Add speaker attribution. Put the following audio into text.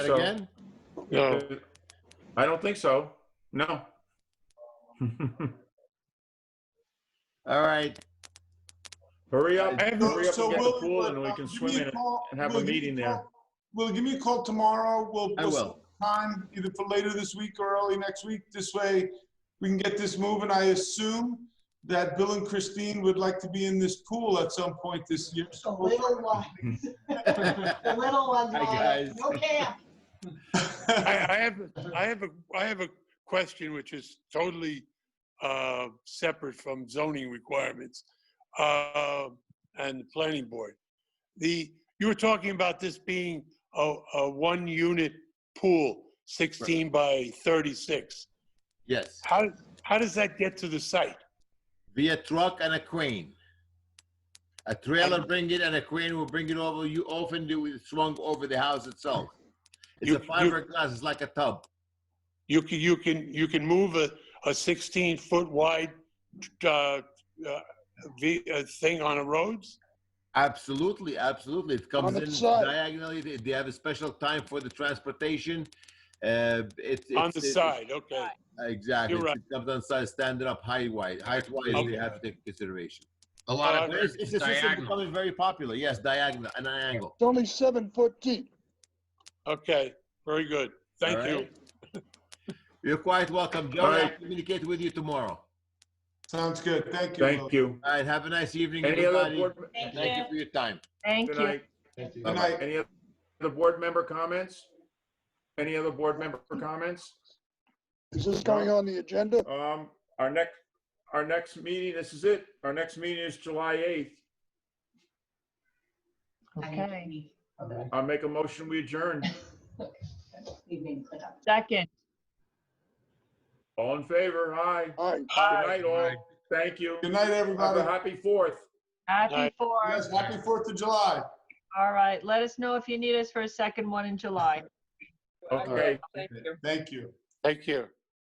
Speaker 1: So-
Speaker 2: again?
Speaker 3: No.
Speaker 1: I don't think so. No.
Speaker 2: All right.
Speaker 1: Hurry up,
Speaker 4: I have no-
Speaker 1: hurry up
Speaker 4: so
Speaker 1: and get the
Speaker 4: we'll-
Speaker 1: pool and we
Speaker 4: uh,
Speaker 1: can
Speaker 4: give
Speaker 1: swim
Speaker 4: me a
Speaker 1: in it.
Speaker 4: call-
Speaker 1: and have a
Speaker 4: Will, give me
Speaker 1: meeting there.
Speaker 4: call- Will, give me a call tomorrow. We'll,
Speaker 2: I
Speaker 4: we'll
Speaker 2: will.
Speaker 4: set time either for later this week or early next week. This way, we can get this moving. I assume that Bill and Christine would like to be in this pool at some point this year.
Speaker 5: The
Speaker 4: So we'll-
Speaker 5: little one, the little one,
Speaker 2: Hi,
Speaker 5: Lyle.
Speaker 2: guys.
Speaker 5: no camp.
Speaker 3: I, I have, I have a, I have a question which is totally uh, separate from zoning requirements uh, and the planning board. The, you were talking about this being a, a one-unit pool, 16 by 36.
Speaker 2: Yes.
Speaker 3: How, how does that get to the site?
Speaker 2: Via truck and a crane. A trailer bring it and a crane will bring it over. You often do it swung over the house itself. It's
Speaker 3: You-
Speaker 2: a
Speaker 3: you-
Speaker 2: fiberglass, it's like a tub.
Speaker 3: You can, you can, you can move a, a 16-foot wide uh, uh, ve- uh, thing on the roads?
Speaker 2: Absolutely, absolutely. It comes
Speaker 6: the
Speaker 2: in
Speaker 6: side.
Speaker 2: diagonally. They- They have a special time for the transportation. Uh, it's
Speaker 3: On
Speaker 2: it's-
Speaker 3: the
Speaker 2: it's-
Speaker 3: side, okay.
Speaker 2: Exactly.
Speaker 3: You're right.
Speaker 2: It comes on side, standing up high wide. Height wise,
Speaker 3: Okay.
Speaker 2: we have to take consideration.
Speaker 1: A lot
Speaker 3: of
Speaker 2: But It's, it's a system becoming very popular. Yes, diagonal and an angle.
Speaker 6: It's only seven foot deep.
Speaker 3: Okay, very good. Thank
Speaker 2: All
Speaker 3: you.
Speaker 2: right. You're quite welcome. Joe,
Speaker 1: All
Speaker 2: I'll
Speaker 1: right.
Speaker 2: communicate with you tomorrow.
Speaker 4: Sounds good. Thank you. Will.
Speaker 1: Thank you.
Speaker 2: All right, have a nice evening,
Speaker 1: Any other
Speaker 2: everybody.
Speaker 1: board,
Speaker 5: Thank
Speaker 2: Thank you
Speaker 5: you.
Speaker 2: for your time.
Speaker 1: good
Speaker 7: Thank you.
Speaker 1: night.
Speaker 4: Good night.
Speaker 1: Any other board member comments? Any other board member comments?
Speaker 6: Is this going on the agenda?
Speaker 1: Um, our next, our next meeting, this is it. Our next meeting is July 8th.
Speaker 7: Okay.
Speaker 1: I'll make a motion, we adjourn.
Speaker 5: Evening cleanup.
Speaker 7: Second.
Speaker 1: All in favor? Aye.
Speaker 6: All right.
Speaker 1: Good night, all. Thank you.
Speaker 4: Good night,
Speaker 1: Have
Speaker 4: everybody.
Speaker 1: a happy fourth.
Speaker 7: Happy
Speaker 3: Night.
Speaker 7: fourth.
Speaker 4: Yes, happy Fourth of July.
Speaker 7: All right. Let us know if you need us for a second one in July.
Speaker 1: Okay.
Speaker 4: Thank you.
Speaker 3: Take care.